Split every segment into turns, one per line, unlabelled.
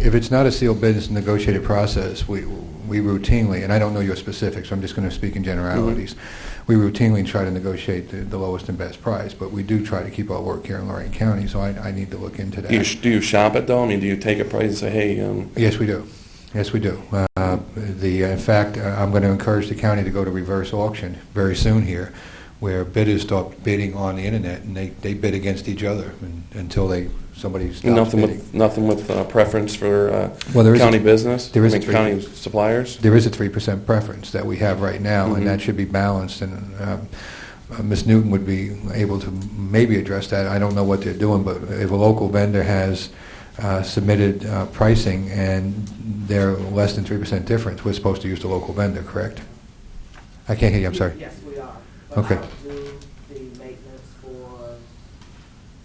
If it's not a sealed business negotiated process, we, we routinely, and I don't know your specifics, I'm just going to speak in generalities,
Mm-hmm.
we routinely try to negotiate the, the lowest and best price, but we do try to keep our work here in Lorraine County, so I, I need to look into
Do you,
that.
sh- do you shop it though? I mean, do you take a price and say, hey, um,
Yes, we do. Yes, we do. Uh, The, in fact, uh, I'm going to encourage the county to go to reverse auction very soon here, where bidders start bidding on the internet, and they, they bid against each other and- until they, somebody stops
nothing
bidding.
with, nothing with uh, preference for uh,
Well, there is a-
county business?
there is a
I mean,
three-
county suppliers?
there is a 3% preference that we have right now, and
Mhm.
Mm-hmm.
that should be balanced, and um, uh, Ms. Newton would be able to maybe address that. I don't know what they're doing, but if a local vendor has uh, submitted uh, pricing and they're less than 3% difference, we're supposed to use the local vendor, correct? I can't hear you, I'm sorry.
Yes, we are.
Okay.
But I do the maintenance for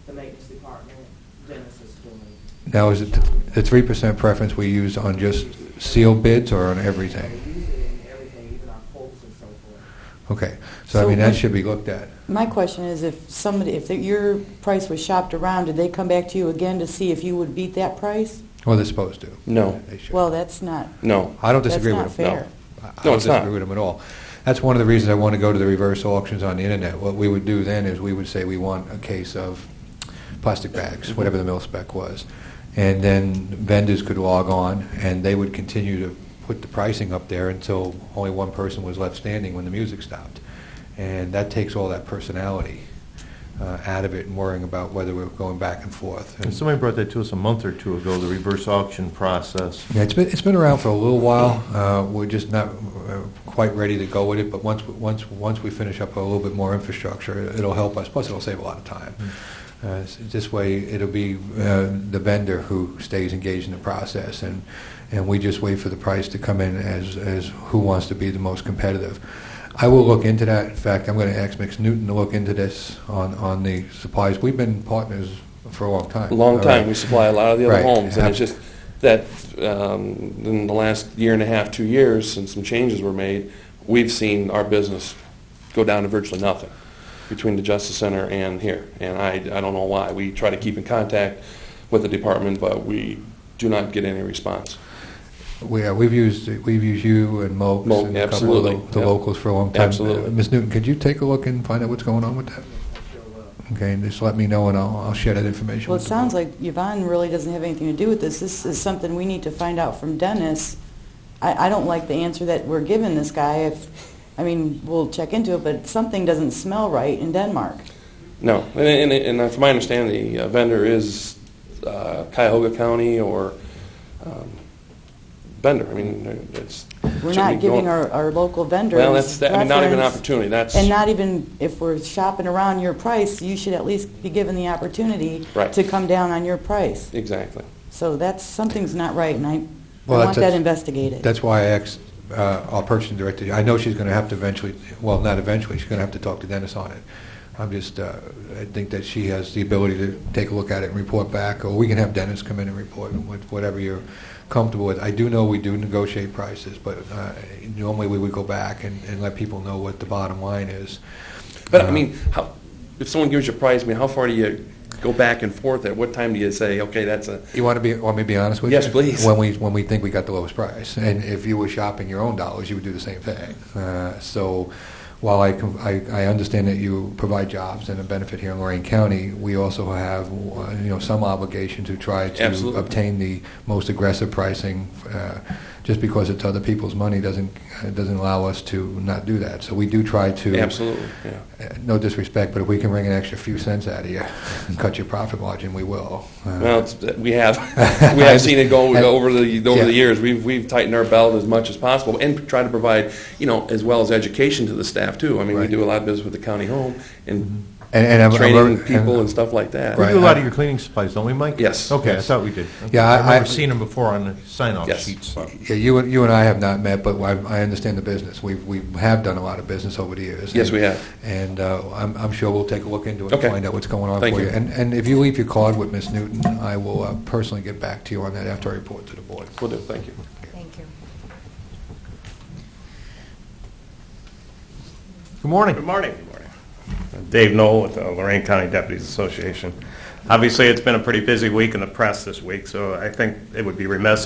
the maintenance department, Dennis is doing.
Now, is it the 3% preference we use on just sealed bids or on
We
everything?
use it in everything, even our quotes and so forth.
Okay, so I
So
mean, that
what-
should be looked at.
My question is, if somebody, if your price was shopped around, did they come back to you again to see if you would beat that price?
Well, they're supposed to.
No.
They should.
Well, that's not,
No.
I don't disagree with
that's
them.
not fair.
I- I
No,
don't
it's not.
disagree with them at all. That's one of the reasons I want to go to the reverse auctions on the internet. What we would do then is we would say we want a case of plastic
Mm-hmm.
bags, whatever the mill spec was. And then vendors could log on, and they would continue to put the pricing up there until only one person was left standing when the music stopped. And that takes all that personality uh, out of it and worrying about whether we're going back and forth.
And somebody brought that to us a month or two ago, the reverse auction process.
Yeah, it's been, it's been around for a little while. Uh, We're just not uh, quite ready to go with it, but once, once, once we finish up a little bit more infrastructure, it'll help us, plus it'll save a lot of time.
Hmm.
Uh, s- This way, it'll be uh, the vendor who stays engaged in the process, and, and we just wait for the price to come in as, as who wants to be the most competitive. I will look into that. In fact, I'm going to ask Mix Newton to look into this on, on the supplies. We've been partners for a long time.
Long
All right.
time. We supply a lot of the other
Right.
homes. And it's
Ab-
just that um, in the last year and a half, two years, since some changes were made, we've seen our business go down to virtually nothing between the Justice Center and here. And I, I don't know why. We try to keep in contact with the department, but we do not get any response.
We, uh, we've used, we've used you and Moakes
Moakes,
and a couple of
absolutely,
lo- the
yeah.
locals for a long time.
Absolutely.
Uh, Ms. Newton, could you take a look and find out what's going on with that? Okay, and just let me know, and I'll, I'll share that information.
well, it
with the
sounds
board.
like Yvonne really doesn't have anything to do with this. This is something we need to find out from Dennis. I, I don't like the answer that we're giving this guy. If, I mean, we'll check into it, but something doesn't smell right in Denmark.
No, and, and, and from my understanding, the uh, vendor is uh, Cuyahoga County or um, Bender. I mean, it's
We're
shouldn't
not
be
giving
going-
our, our local vendors
well. That's that, I mean, not even an
preference.
opportunity. That's
And not even, if we're shopping around your price, you should at least be given the opportunity
Right.
to come down on your price.
exactly.
So that's, something's not right, and I I
Well,
want
that's-
that investigated.
That's why I asked uh, our purchasing director, I know she's going to have to eventually, well, not eventually, she's going to have to talk to Dennis on it. I'm just, uh, I think that she has the ability to take a look at it and report back, or we can have Dennis come in and report, with whatever you're comfortable with. I do know we do negotiate prices, but uh, normally we would go back and and let people know what the bottom line is.
But
Uh,
I mean, how, if someone gives you a price, I mean, how far do you go back and forth? At what time do you say, okay, that's a
You want to be, want me to be honest with
Yes,
you?
please.
When we, when we think we got the lowest price, and if you were shopping your own dollars, you would do the same thing. Uh, so while I, com- I, I understand that you provide jobs and a benefit here in Lorraine County, we also have, uh, you know, some obligation to try to
Absolutely.
obtain the most aggressive pricing. Uh, just because it's other people's money doesn't, uh, doesn't allow us to not do that. So we do try to
absolutely, yeah.
uh, No disrespect, but if we can wring an extra few cents out of you and cut your profit margin, we will. Uh,
Well, it's, we have we have seen it go
I-
over the over
Yeah.
the years. We've we've tightened our belt as much as possible and try to provide you know as well as education to the staff too. I mean,
Right.
we do a lot of business with the county home and
And, and I'm, I'm
training
very-
people and stuff like that.
We
Right.
do a lot of your cleaning supplies, don't we, Mike?
Yes.
Okay, I
Yes.
thought we did.
Yeah, I-
I've
I-
never seen them before on the sign-off
Yes.
sheets.
Yeah, you, and- you and I have not met, but I, I understand the business. We, we have done a lot of business over the years.
Yes, we have.
And uh, I'm, I'm sure we'll take a look into it
Okay.
and find out what's going on
Thank
for you.
you.
And, and if you leave your card with Ms. Newton, I will uh, personally get back to you on that after I report to the board.
Will do. Thank you.
Thank you.
Good morning.
Good morning. Good morning.
Dave Knoll with the Lorraine County Deputies Association. Obviously, it's been a pretty busy week in the press this week, so I think it would be remiss